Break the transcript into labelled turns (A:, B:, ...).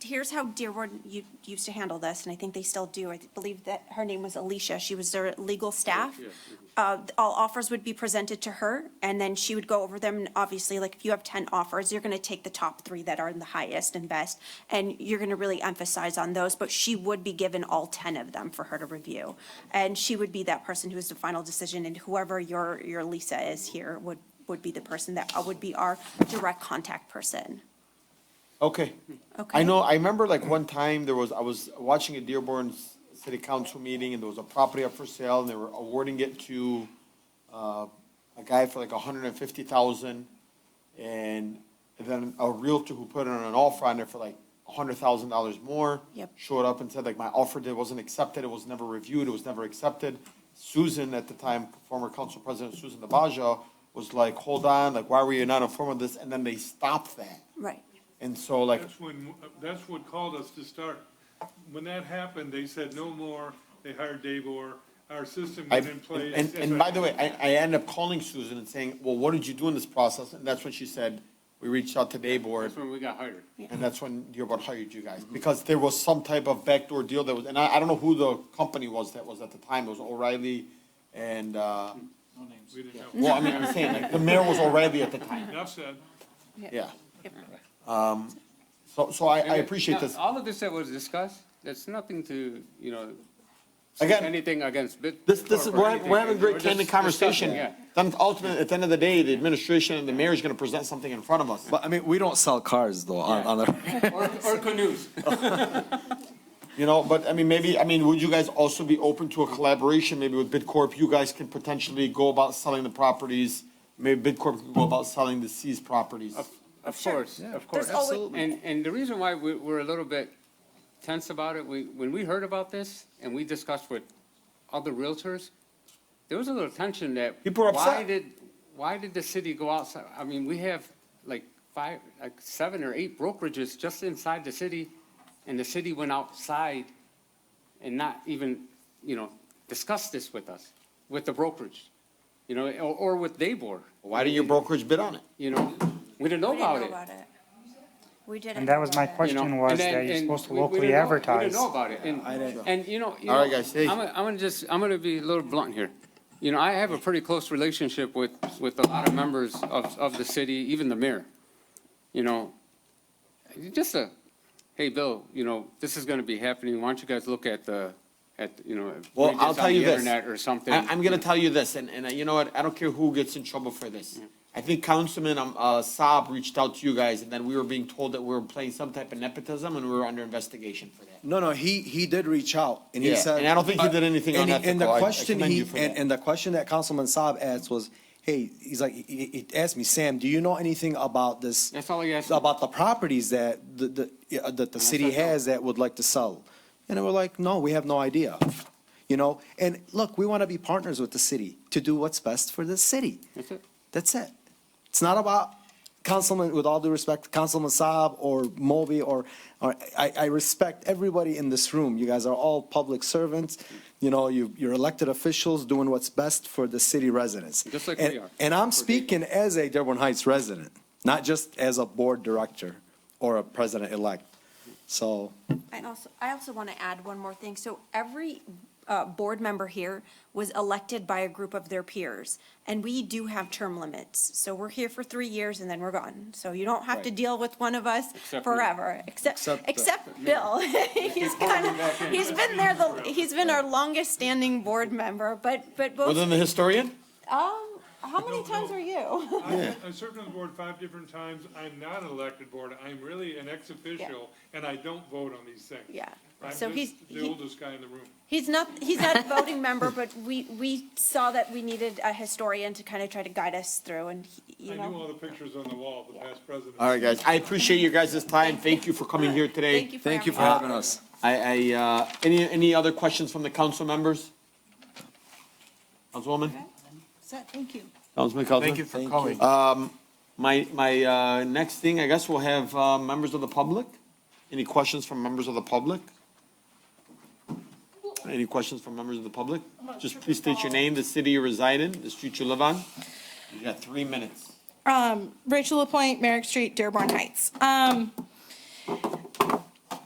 A: here's how Dearborn u- used to handle this, and I think they still do. I believe that her name was Alicia. She was their legal staff. Uh, all offers would be presented to her, and then she would go over them. And obviously, like if you have ten offers, you're gonna take the top three that are the highest and best, and you're gonna really emphasize on those, but she would be given all ten of them for her to review. And she would be that person who is the final decision, and whoever your, your Lisa is here would, would be the person that would be our direct contact person.
B: Okay. I
A: Okay.
B: know, I remember like one time there was, I was watching a Dearborn s- City Council meeting and there was a property up for sale and they were awarding it to uh, a guy for like a hundred and fifty thousand. And then a realtor who put in an offer on it for like a hundred thousand dollars more.
A: Yep.
B: Showed up and said like, my offer did, wasn't accepted, it was never reviewed, it was never accepted. Susan at the time, former council president Susan Navajo, was like, hold on, like, why were you not informed of this? And then they stopped that.
A: Right.
B: And so like,
C: That's when, that's what called us to start. When that happened, they said no more, they hired Dave Orr, our system
B: I,
C: went in
B: and,
C: place.
B: and- and by the way, I, I ended up calling Susan and saying, well, what did you do in this process? And that's when she said, we reached out to Dayboard,
D: That's when we got hired.
B: and that's when Dearborn hired you guys. Because there was some type of backdoor deal that was, and I, I don't know who the company was that was at the time, it was O'Reilly and, uh,
C: We didn't know.
B: well, I mean, I'm saying, like, the mayor was O'Reilly at the time,
C: Enough said.
B: yeah. Um, So, so I, I appreciate this.
D: All of this that was discussed, there's nothing to, you know,
B: Again,
D: anything against bit.
B: This, this is,
D: or
B: we're,
D: anything.
B: we're having a great
D: We're
B: candid
D: just
B: conversation.
D: discussing, yeah.
B: Then ultimately, at the end of the day, the administration and the mayor is gonna present something in front of us.
E: But I mean, we don't sell cars though on, on the.
D: Or, or canoes.
B: You know, but I mean, maybe, I mean, would you guys also be open to a collaboration, maybe with Bidcorp? You guys can potentially go about selling the properties. Maybe Bidcorp could go about selling the seized properties.
D: Of course, of course.
A: There's always- Absolutely.
D: And, and the reason why we, we're a little bit tense about it, we, when we heard about this and we discussed with other realtors, there was a little tension that.
B: People are
D: Why
B: upset.
D: did, why did the city go outside? I mean, we have like five, like seven or eight brokerages just inside the city and the city went outside and not even, you know, discuss this with us, with the brokerage, you know, or, or with Daybor,
B: Why did your brokerage bid on it?
D: you know? We didn't know
A: We didn't
D: about
A: know
D: it.
A: about it. We didn't.
F: And that was my
A: know about it.
F: question.
D: you know,
F: was
D: and then-
F: that you're
D: and
F: supposed to
D: we- we
F: locally
D: didn't know- We
F: advertise.
D: didn't know about it, and, and, you know, you know.
B: All right, guys, hey.
D: I'm, gonna- I'm gonna just, I'm gonna be a little blunt here. You know, I have a pretty close relationship with, with a lot of members of, of the city, even the mayor. You know, just a, hey, Bill, you know, this is gonna be happening, why don't you guys look at the, at, you know.
B: Well,
D: read
B: I'll
D: on
B: tell you
D: the
B: this.
D: Internet or something.
B: I, am gonna tell you this, and, and uh, you know what, I don't care who gets in trouble for this. I think Councilman, um, uh, Saab reached out to you guys, and then we were being told that we were playing some type of nepotism, and we were under investigation for that.
E: No, no, he, he did reach out and he
B: Yeah,
E: said.
B: and I don't think he did anything
E: And he- And the
B: unethical. I- I
E: question
B: commend
E: he,
B: you for
E: and,
B: that.
E: and the question that Councilman Saab asked was, hey, he's like, he, he he asked me, Sam, do you know anything about this?
D: That's all he asked me.
E: About the properties that the, the, yeah, that the city
D: said no.
E: has that would like to sell? And they were like, no, we have no idea. You know, and look, we want to be partners with the city to do what's best for the city.
D: That's it.
E: That's it. It's not about Councilman, with all due respect, Councilman Saab or Moby or, or I, I respect everybody in this room. You guys are all public servants. You know, you, you're elected officials doing what's best for the city residents.
D: Just like
E: And-
D: we are.
E: And I'm
D: For
E: speaking as a Dearborn Heights resident, not just as a board director or a president-elect. So,
A: I also, I also want to add one more thing. So every uh, board member here was elected by a group of their peers, and we do have term limits. So we're here for three years and then we're gone. So you don't have to deal with one of us
D: Except me.
A: forever, except,
E: Except, uh,
A: except Bill. He's kind of, he's been there, the he's been our longest-standing board member, but, but
B: Well,
A: both,
B: then the historian?
A: um, how many times were you?
C: I I served on the board five different times. I'm not an elected board. I'm really an ex-official, and I don't vote on these things.
A: Yeah.
C: I'm
A: So he's-
C: just the
A: he-
C: oldest guy in the room.
A: He's not, he's not a voting member, but we, we saw that we needed a historian to kind of try to guide us through and, he-
C: I
A: you know.
C: knew all the pictures on the wall, of the past presidents.
B: All right, guys, I appreciate you guys' time, thank you for coming here today.
A: Thank you for
E: thank you
A: having
E: for
B: Uh,
A: us.
E: having
B: I,
E: us.
B: I, uh, any, any other questions from the council members? Councilwoman?
G: Thank you.
B: Councilman Cosner?
E: Thank you Um, for calling.
B: Um, My, my, uh, next thing, I guess we'll have, uh, members of the public. Any questions from members of the public? Any questions from members of the public? Just please state your name, the city you reside in, the street you live on. You got three minutes.
G: Rachel Lapointe, Merrick Street, Dearborn Heights. Um,